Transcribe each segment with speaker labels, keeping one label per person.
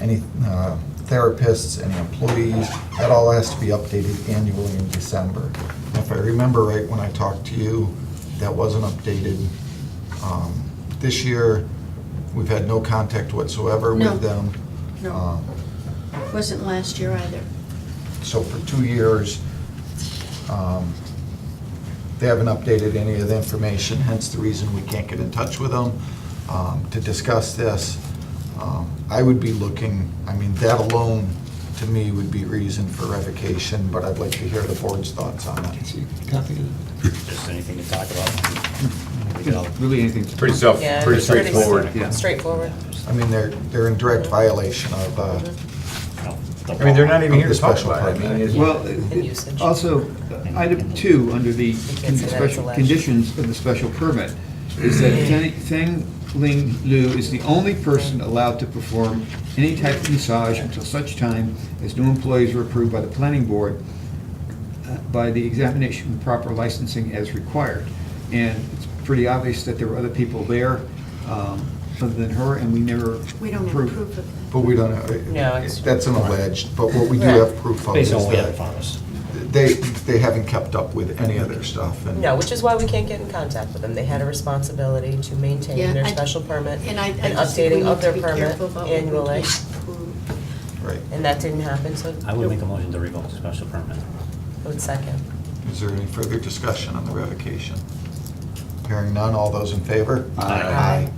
Speaker 1: any uh, therapists, any employees, that all has to be updated annually in December. If I remember right, when I talked to you, that wasn't updated um, this year. We've had no contact whatsoever
Speaker 2: No.
Speaker 1: with them.
Speaker 2: No.
Speaker 1: Um,
Speaker 2: Wasn't last year either.
Speaker 1: So for two years, um, they haven't updated any of the information, hence the reason we can't get in touch with them um, to discuss this. Um, I would be looking, I mean, that alone, to me, would be reason for revocation, but I'd like to hear the board's thoughts on that.
Speaker 3: Copy of
Speaker 4: Just anything to talk about. We could all-
Speaker 3: it. Really anything. to-
Speaker 5: Pretty self,
Speaker 6: Yeah,
Speaker 5: pretty
Speaker 6: it's pretty
Speaker 5: straightforward.
Speaker 3: Yeah.
Speaker 6: Straightforward.
Speaker 1: I mean, they're, they're in direct violation of, uh,
Speaker 4: no, the
Speaker 5: I mean, they're not
Speaker 4: law.
Speaker 5: even here to
Speaker 1: Of the
Speaker 5: talk
Speaker 1: special
Speaker 5: about it. I mean,
Speaker 1: permit.
Speaker 5: it's-
Speaker 3: Well,
Speaker 6: And usage.
Speaker 3: also, uh, item two, under the
Speaker 6: can't say that it's
Speaker 3: special
Speaker 6: alleged.
Speaker 3: conditions of the special permit, is that Zhang- Zhang Ling Lu is the only person allowed to perform any type of massage until such time as new employees are approved by the planning board uh, by the examination and proper licensing as required. And it's pretty obvious that there were other people there um, other than her, and we never approved.
Speaker 2: We don't have proof of
Speaker 1: but we don't,
Speaker 6: No,
Speaker 1: know.
Speaker 6: it's-
Speaker 1: that's an alleged, but what we do have proof of is
Speaker 4: Based on what we have in
Speaker 1: that
Speaker 4: front of us.
Speaker 1: they, they haven't kept up with any of their stuff. and-
Speaker 6: No, which is why we can't get in contact with them. They had a responsibility to
Speaker 2: that.
Speaker 6: maintain
Speaker 2: Yeah,
Speaker 6: their
Speaker 2: I-
Speaker 6: special permit and
Speaker 2: I- I just think we
Speaker 6: updating
Speaker 2: need
Speaker 6: of
Speaker 2: to
Speaker 6: their
Speaker 2: be
Speaker 6: permit
Speaker 2: careful about what we
Speaker 6: annually.
Speaker 2: can't prove.
Speaker 1: Right.
Speaker 6: And that didn't happen, so.
Speaker 4: I would make a motion to revoke the special permit.
Speaker 6: I would second.
Speaker 1: Is there any further discussion on the revocation? Hearing none, all those in favor?
Speaker 6: Aye.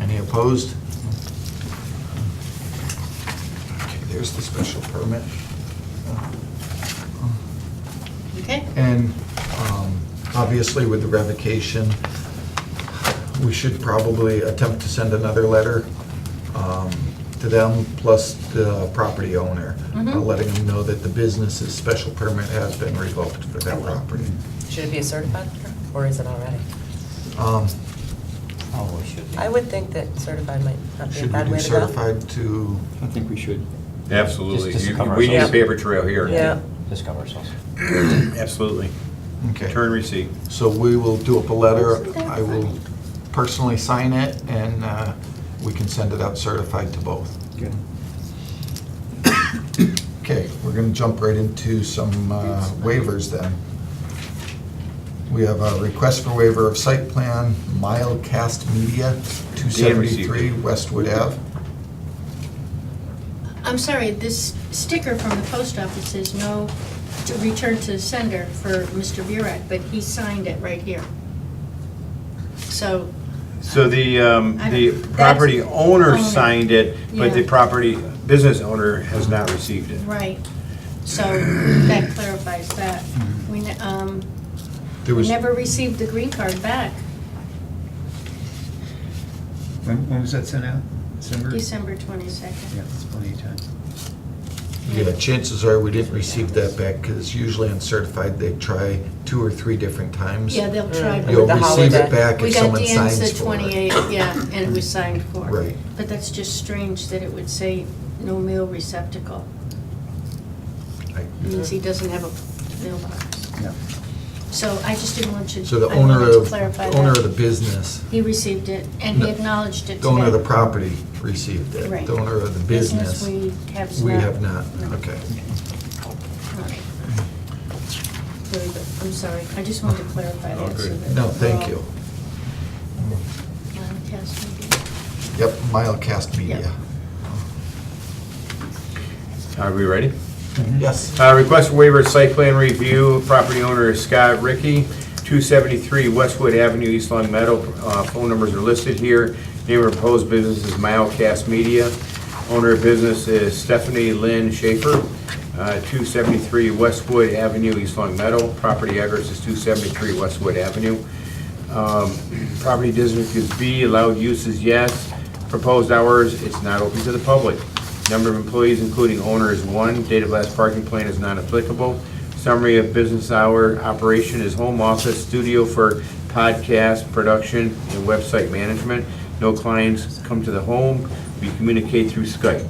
Speaker 1: Any opposed? Okay, there's the special permit.
Speaker 2: Okay.
Speaker 1: And um, obviously with the revocation, we should probably attempt to send another letter um, to them, plus the property owner, uh,
Speaker 6: Mhm.
Speaker 1: letting them know that the business's special permit has been revoked for that property.
Speaker 6: Should it be a certified letter, or is it already?
Speaker 1: Um,
Speaker 4: Oh, we should. be.
Speaker 6: I would think that certified might not be a
Speaker 1: Should we
Speaker 6: bad
Speaker 1: do
Speaker 6: way to go.
Speaker 1: certified to,
Speaker 3: I think we should.
Speaker 5: Absolutely.
Speaker 4: Just- just
Speaker 5: You-
Speaker 4: cover
Speaker 5: We need a
Speaker 4: ourselves.
Speaker 5: paper trail here.
Speaker 6: Yeah.
Speaker 4: Just cover ourselves.
Speaker 5: Absolutely.
Speaker 1: okay.
Speaker 5: Turn receipt.
Speaker 1: So we will do up a letter.
Speaker 2: Isn't that
Speaker 1: I will
Speaker 2: funny?
Speaker 1: personally sign it, and uh, we can send it out certified to both.
Speaker 3: Good.
Speaker 1: Okay, we're going to jump right into some uh, waivers then. We have a request for waiver of site plan, Milecast Media,
Speaker 5: Dan received
Speaker 1: 273
Speaker 5: it.
Speaker 1: Westwood Ave.
Speaker 2: I'm sorry, this sticker from the post office says no to return to sender for Mr. Burek, but he signed it right here. So,
Speaker 5: So the, um,
Speaker 2: I
Speaker 5: the
Speaker 2: don't-
Speaker 5: property
Speaker 2: that's-
Speaker 5: owner
Speaker 2: owner.
Speaker 5: signed it, but the
Speaker 2: Yeah.
Speaker 5: property, business owner has not received it.
Speaker 2: right, so that clarifies that. We, ne- um,
Speaker 1: There
Speaker 2: we
Speaker 1: was,
Speaker 2: never received the green card back,
Speaker 3: When when was that sent out? December?
Speaker 2: December
Speaker 3: Yeah,
Speaker 2: 22nd.
Speaker 3: it's plenty of time.
Speaker 1: yeah, chances are we didn't receive that back because usually on certified, they try two or three different times.
Speaker 2: Yeah, they'll try.
Speaker 6: Mm.
Speaker 2: but-
Speaker 1: You'll
Speaker 6: The
Speaker 1: receive
Speaker 6: holiday.
Speaker 1: it back
Speaker 2: We
Speaker 1: if
Speaker 2: got
Speaker 1: someone
Speaker 2: Dan's
Speaker 1: signs
Speaker 2: the
Speaker 1: for it. Mm.
Speaker 2: 28th, yeah, and we signed for. it.
Speaker 1: Right.
Speaker 2: But that's just strange that it would say no mail receptacle. It Means
Speaker 1: Mm.
Speaker 2: he doesn't have a mailbox.
Speaker 3: Yeah.
Speaker 2: So I just didn't want you,
Speaker 1: So the
Speaker 2: I wanted
Speaker 1: owner
Speaker 2: to
Speaker 1: of,
Speaker 2: clarify
Speaker 1: owner of the
Speaker 2: that.
Speaker 1: business,
Speaker 2: He received it, and
Speaker 1: No.
Speaker 2: he acknowledged it today.
Speaker 1: the owner of the property received it.
Speaker 2: Right.
Speaker 1: The owner of the business,
Speaker 2: Business we have not.
Speaker 1: we have not,
Speaker 2: No.
Speaker 1: okay.
Speaker 2: All right. Very good. I'm sorry, I just wanted to clarify that. so that
Speaker 1: No,
Speaker 2: we're
Speaker 1: thank
Speaker 2: all-
Speaker 1: you.
Speaker 2: Uh, yes, maybe.
Speaker 1: Yep, Milecast Media.
Speaker 3: Mm-hmm.
Speaker 5: Are we ready?
Speaker 1: Yes.
Speaker 5: Uh, Request for waiver, site plan review, property owner is Scott Ricky, 273 Westwood Avenue, East Long Meadow. Uh, Phone numbers are listed here. Name of proposed business is Milecast Media. Owner of business is Stephanie Lynn Schaefer, uh, 273 Westwood Avenue, East Long Meadow. Property address is 273 Westwood Avenue. Um, Property district is B, allowed use is yes. Proposed hours, it's not open to the public. Number of employees, including owner, is one. Date of last parking plan is not applicable. Summary of business hour operation is home office, studio for podcast production, and website management. No clients come to the home. We communicate through Skype.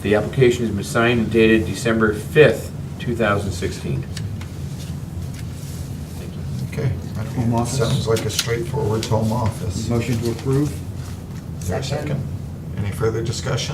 Speaker 5: The application has been signed and dated December 5th, 2016.
Speaker 1: Okay.
Speaker 3: Home office.
Speaker 1: Sounds like a straightforward home office.
Speaker 3: Motion to approve?
Speaker 1: Is there a
Speaker 6: Second.
Speaker 1: Any further discussion?